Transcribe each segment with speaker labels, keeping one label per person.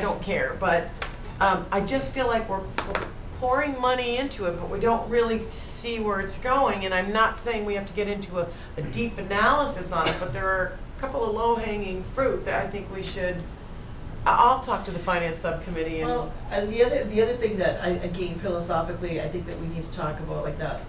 Speaker 1: don't care, but um, I just feel like we're we're pouring money into it, but we don't really see where it's going. And I'm not saying we have to get into a, a deep analysis on it, but there are a couple of low hanging fruit that I think we should. I- I'll talk to the finance subcommittee and.
Speaker 2: Well, and the other, the other thing that I, again philosophically, I think that we need to talk about, like that,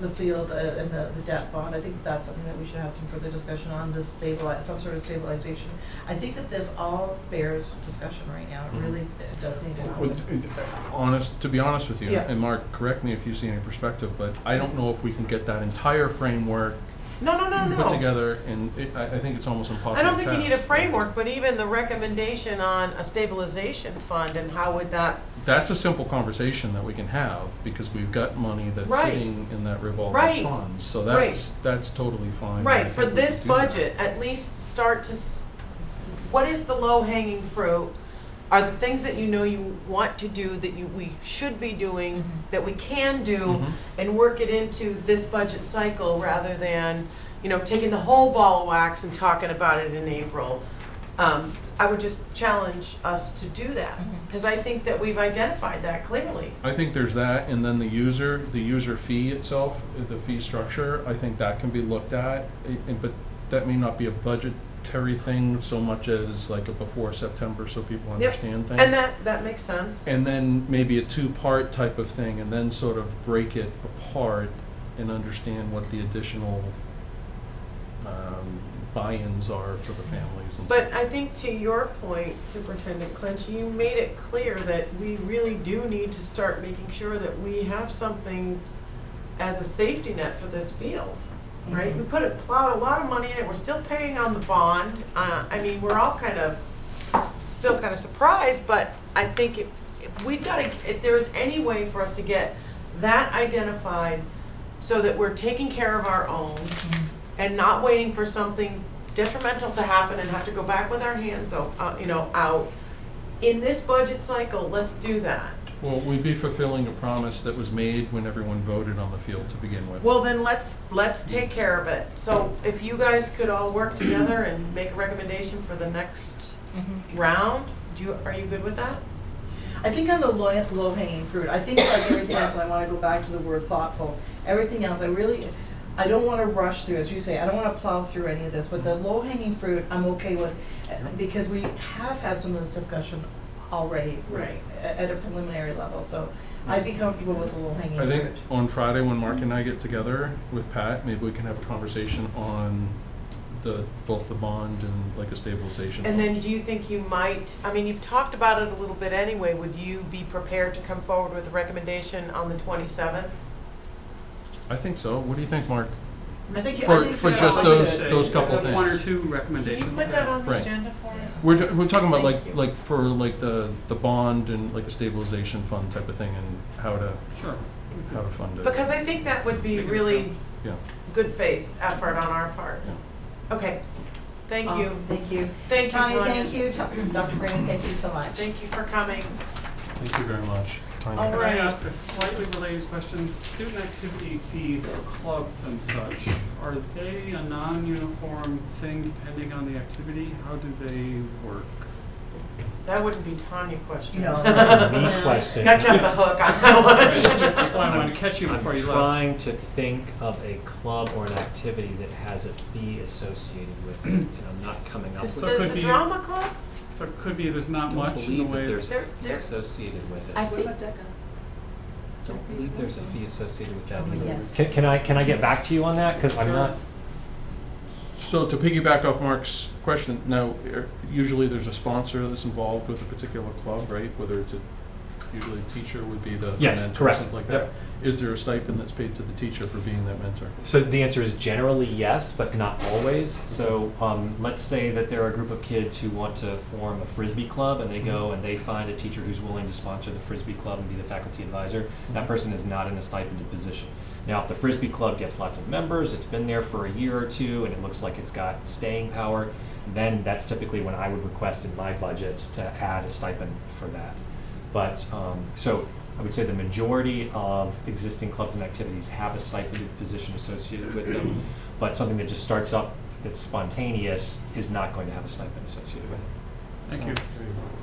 Speaker 2: the field uh, and the, the debt bond, I think that's something that we should have some further discussion on, to stabilize, some sort of stabilization. I think that this all bears discussion right now, it really it does need to
Speaker 3: Well,
Speaker 2: happen.
Speaker 3: t- t- Honest, to be honest with you,
Speaker 1: Yeah.
Speaker 3: and Mark, correct me if you see any perspective, but I don't know if we can get that entire framework
Speaker 1: no, no, no, no.
Speaker 3: put together, and it- I, I think it's almost impossible
Speaker 1: I don't think you need a
Speaker 3: task.
Speaker 1: framework, but even the recommendation on a stabilization fund and how would that,
Speaker 3: That's a simple conversation that we can have, because we've got money that's
Speaker 1: Right.
Speaker 3: sitting in that
Speaker 1: Right.
Speaker 3: revolving fund, so that's, that's totally fine. I
Speaker 1: right, for
Speaker 3: think we
Speaker 1: this
Speaker 3: can do that.
Speaker 1: budget, at least start to, s- what is the low hanging fruit? Are the things that you know you want to do, that you, we should be doing,
Speaker 2: Mhm.
Speaker 1: that we can do,
Speaker 3: Mhm.
Speaker 1: and work it into this budget cycle rather than, you know, taking the whole ball of wax and talking about it in April. Um, I would just challenge us to do that,
Speaker 2: Mhm.
Speaker 1: because I think that we've identified that clearly.
Speaker 3: I think there's that, and then the user, the user fee itself, uh, the fee structure, I think that can be looked at, i- and, but that may not be a budgetary thing so much as like a before September, so people
Speaker 1: Yep.
Speaker 3: understand things.
Speaker 1: And that, that makes sense.
Speaker 3: And then maybe a two-part type of thing, and then sort of break it apart and understand what the additional, um, buy-ins are for the families and stuff.
Speaker 1: But I think to your point, Superintendent Clinch, you made it clear that we really do need to start making sure that we have something as a safety net for this field, right? We put it, plowed a lot of money in it, we're still paying on the bond. Uh, I mean, we're all kind of, still kind of surprised, but I think if, if we've got to, if there is any way for us to get that identified so that we're taking care of our own, and not waiting for something detrimental to happen and have to go back with our hands, o- uh, you know, out. In this budget cycle, let's do that.
Speaker 3: Well, we'd be fulfilling a promise that was made when everyone voted on the field to begin with.
Speaker 1: Well, then let's, let's take care of it. So if you guys could all work together and make a recommendation for the next
Speaker 2: Mhm.
Speaker 1: round, do you, are you good with that?
Speaker 2: I think on the low, low hanging fruit, I think like everything else, and I wanna go back to the word thoughtful, everything else, I really, I don't wanna rush through, as you say, I don't wanna plow through any of this, but the low hanging fruit, I'm okay with, uh, because we have had some of this discussion already
Speaker 1: Right.
Speaker 2: a- at a preliminary level, so I'd be comfortable with the low hanging
Speaker 3: I
Speaker 2: fruit.
Speaker 3: think on Friday, when Mark and I get together with Pat, maybe we can have a conversation on the, both the bond and like a stabilization.
Speaker 1: And then do you think you might, I mean, you've talked about it a little bit anyway, would you be prepared to come forward with a recommendation on the twenty-seventh?
Speaker 3: I think so. What do you think, Mark?
Speaker 2: I think,
Speaker 3: for-
Speaker 2: I think.
Speaker 3: for
Speaker 2: that-
Speaker 3: just
Speaker 2: I think
Speaker 3: those-
Speaker 2: that-
Speaker 3: those couple
Speaker 4: One or
Speaker 3: things.
Speaker 4: two
Speaker 1: Can you
Speaker 4: recommendations.
Speaker 1: put that on the
Speaker 3: Right.
Speaker 1: agenda for us?
Speaker 3: We're, ju- we're talking about
Speaker 1: Thank
Speaker 3: like,
Speaker 1: you.
Speaker 3: like for like the, the bond and like a stabilization fund type of thing and how to,
Speaker 4: Sure.
Speaker 3: how to fund it.
Speaker 1: Because I think that would be
Speaker 4: Think it
Speaker 1: really
Speaker 4: too.
Speaker 3: Yeah,
Speaker 1: good faith effort on our part.
Speaker 3: yeah.
Speaker 1: Okay, thank you.
Speaker 2: Awesome, thank you.
Speaker 1: Thank you,
Speaker 2: Tony,
Speaker 1: Tanya.
Speaker 2: thank you, To- Dr. Green, thank you so much.
Speaker 1: Thank you for coming.
Speaker 3: Thank you very much. Tanya.
Speaker 1: All
Speaker 4: Can
Speaker 1: right.
Speaker 4: I ask a slightly related question? Student activity fees for clubs and such, are they a non-uniform thing depending on the activity? How do they work?
Speaker 1: That wouldn't be Tanya question.
Speaker 2: No.
Speaker 5: That's a me question.
Speaker 1: Got you off the hook on that
Speaker 4: Right,
Speaker 1: one.
Speaker 4: That's why I wanted to catch you
Speaker 5: I'm
Speaker 4: before you left.
Speaker 5: trying to think of a club or an activity that has a fee associated with it, and I'm not coming up
Speaker 1: Is
Speaker 5: with.
Speaker 4: So it
Speaker 1: this
Speaker 4: could
Speaker 1: a
Speaker 4: be-
Speaker 1: drama club?
Speaker 4: So it could be there's not
Speaker 5: Don't
Speaker 4: much in the
Speaker 5: believe
Speaker 4: way
Speaker 5: that
Speaker 4: of
Speaker 5: there's a
Speaker 1: There-
Speaker 5: fee
Speaker 1: there-
Speaker 5: associated with
Speaker 1: I
Speaker 5: it.
Speaker 6: What
Speaker 1: think,
Speaker 6: about DECA?
Speaker 5: Don't believe there's a fee associated with that either.
Speaker 6: Yes.
Speaker 7: Can, can I, can I get back to you on that? Because I'm not,
Speaker 3: So to piggyback off Mark's question, now, er, usually there's a sponsor that's involved with a particular club, right? Whether it's a, usually a teacher would be the the
Speaker 7: Yes,
Speaker 3: mentor or
Speaker 7: correct.
Speaker 3: something like that.
Speaker 7: Yep.
Speaker 3: Is there a stipend that's paid to the teacher for being that mentor?
Speaker 7: so the answer is generally yes, but not always. So, um, let's say that there are a group of kids who want to form a frisbee club and they go and they find a teacher who's willing to sponsor the frisbee club and be the faculty advisor. That person is not in a stipended position. Now, if the frisbee club gets lots of members, it's been there for a year or two, and it looks like it's got staying power, then that's typically when I would request in my budget to add a stipend for that. But, um, so I would say the majority of existing clubs and activities have a stipend position associated with them, but something that just starts up that's spontaneous is not going to have a stipend associated with it.
Speaker 4: Thank you.
Speaker 3: There you go.